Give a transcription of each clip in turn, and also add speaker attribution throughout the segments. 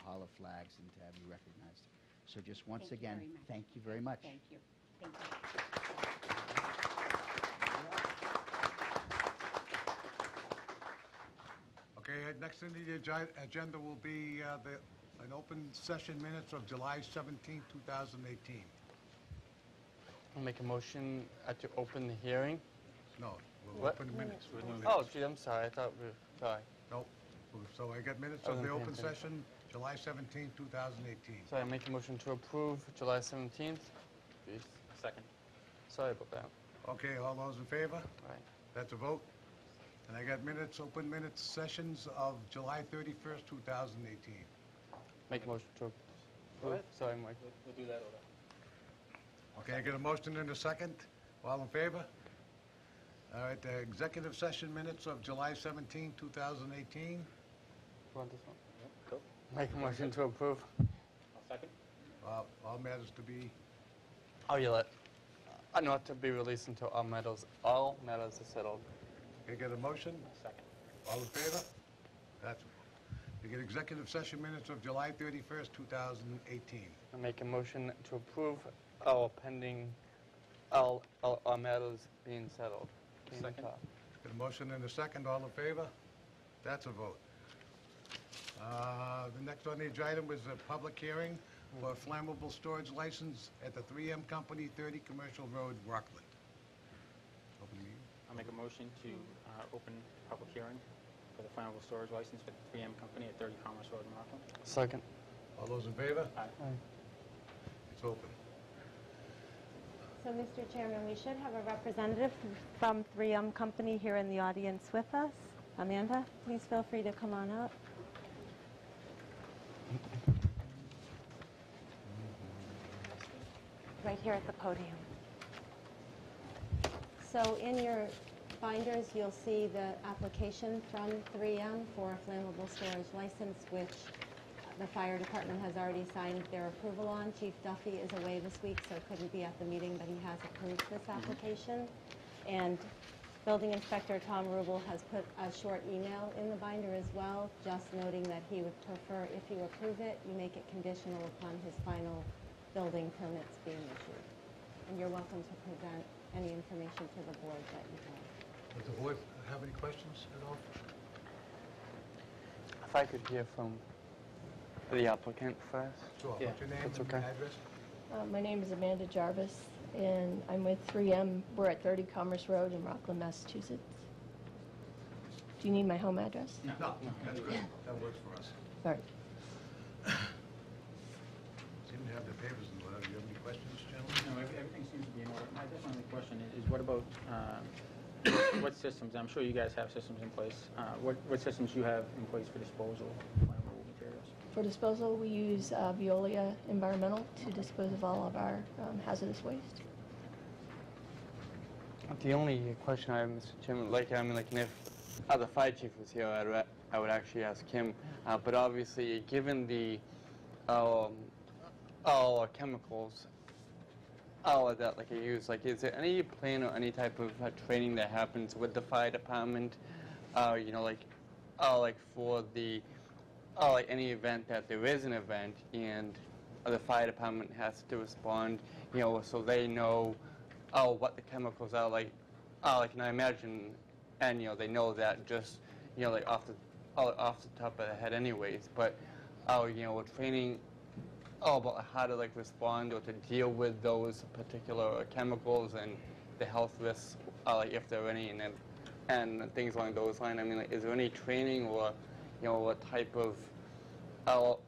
Speaker 1: Impala flags and to have you recognized. So just once
Speaker 2: Thank you very
Speaker 1: again,
Speaker 2: much.
Speaker 1: thank you very much.
Speaker 2: Thank you. Thank you.
Speaker 3: Okay, uh, next on the agi- agenda will be uh, the, an open session minutes of July 17, 2018.
Speaker 4: I'll make a motion uh, to open the hearing.
Speaker 3: No, we'll
Speaker 4: What?
Speaker 3: open the minutes. We'll do
Speaker 4: Oh,
Speaker 3: minutes.
Speaker 4: gee, I'm sorry, I thought we were, sorry.
Speaker 3: Nope. So I got minutes of
Speaker 4: Oh,
Speaker 3: the
Speaker 4: okay,
Speaker 3: open
Speaker 4: okay.
Speaker 3: session, July 17, 2018.
Speaker 4: Sorry, I make a motion to approve July 17th. Jeez,
Speaker 5: Second.
Speaker 4: sorry about that.
Speaker 3: Okay, all those in favor?
Speaker 4: All right.
Speaker 3: That's a vote. And I got minutes, open minutes sessions of July 31st, 2018.
Speaker 4: Make a motion to approve.
Speaker 5: What?
Speaker 4: Sorry, Mike.
Speaker 5: We'll we'll do that order.
Speaker 3: Okay, I got a motion and a second. All in favor? All right, the executive session minutes of July 17, 2018.
Speaker 4: You want this one?
Speaker 5: Cool.
Speaker 4: Make a motion to approve.
Speaker 5: I'll second.
Speaker 3: Uh, All matters to be
Speaker 4: I'll yell it. Uh, Not to be released until all matters, all matters are settled.
Speaker 3: Can I get a motion?
Speaker 5: Second.
Speaker 3: All in favor? That's, you get executive session minutes of July 31st, 2018.
Speaker 4: I make a motion to approve all pending, all, all, all matters being settled. Being
Speaker 5: Second.
Speaker 4: taught.
Speaker 3: Got a motion and a second, all in favor? That's a vote. Uh, The next on the agenda item was a public hearing for a flammable storage license at the 3M Company, 30 Commercial Road, Rockland. Open the meeting.
Speaker 5: I'll make a motion to uh, open public hearing for the flammable storage license for the 3M Company at 30 Commerce Road in Rockland.
Speaker 4: Second.
Speaker 3: All those in favor?
Speaker 5: Aye.
Speaker 4: Aye.
Speaker 3: It's open.
Speaker 6: So, Mr. Chairman, we should have a representative from 3M Company here in the audience with us. Amanda, please feel free to come on up. Right here at the podium. So in your binders, you'll see the application from 3M for a flammable storage license, which the fire department has already signed their approval on. Chief Duffy is away this week, so couldn't be at the meeting, but he has approved this application. And Building Inspector Tom Rubel has put a short email in the binder as well, just noting that he would prefer, if you approve it, you make it conditional upon his final building permits being issued. And you're welcome to present any information to the board that you have.
Speaker 3: Does the board have any questions at all?
Speaker 4: If I could hear from the applicant first.
Speaker 3: Sure,
Speaker 4: Yeah,
Speaker 3: what's your name
Speaker 4: that's
Speaker 3: and
Speaker 4: okay.
Speaker 3: address?
Speaker 7: Uh, My name is Amanda Jarvis, and I'm with 3M. We're at 30 Commerce Road in Rockland, Massachusetts. Do you need my home address?
Speaker 3: No, that's good, that works for us.
Speaker 7: All right.
Speaker 3: Seem to have the papers and whatever. Do you have any questions, gentlemen?
Speaker 5: No, every- everything seems to be in order. My just only question is, is what about, um, what systems, I'm sure you guys have systems in place, Uh, what what systems you have in place for disposal of flammable materials?
Speaker 7: For disposal, we use uh, Veolia Environmental to dispose of all of our um, hazardous waste.
Speaker 4: The only question I have, Mr. Chairman, like, I mean, like, if uh, the fire chief was here, I'd re- I would actually ask him. Uh, but obviously, given the um, all our chemicals, all of Oh, that, like, I use, like, is there any plan or any type of uh, training that happens with the fire department? Uh, you know, like, uh, like for the, uh, like any event that there is an event and the fire department has to respond, you know, so they know oh, what the chemicals are like. Oh, like, and I imagine, and you know, they know that just, you know, like off the, oh, off the top of their head, anyways. But, oh, you know, with training, oh, about how to like respond or to deal with those particular chemicals and the health risks, uh, like if there are any, and then, and things along those lines. I mean, like, is there any training or, you know, what type of, oh,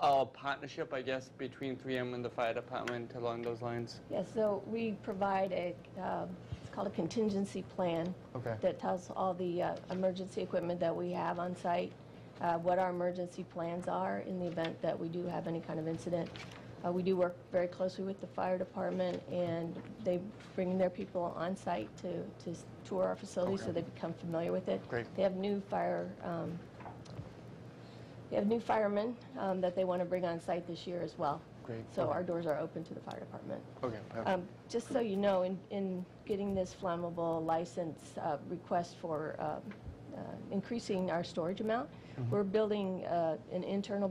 Speaker 4: uh, partnership, I guess, between 3M and the fire department along those lines?
Speaker 7: Yeah, so we provide a, um, it's called a contingency plan.
Speaker 4: Okay.
Speaker 7: That tells all the uh, emergency equipment that we have on site, uh, what our emergency plans are in the event that we do have any kind of incident. Uh, We do work very closely with the fire department, and they bring their people on site to, to s- tour our facility, so they become familiar with it.
Speaker 4: Great.
Speaker 7: They have new fire um, they have new firemen um, that they want to bring on site this year as well.
Speaker 4: Great.
Speaker 7: So
Speaker 4: Okay.
Speaker 7: our doors are open to the fire department.
Speaker 4: Okay, perfect.
Speaker 7: Um, Just so you know, in, in getting this flammable license uh, request for um, uh, increasing our storage amount, we're building uh, an internal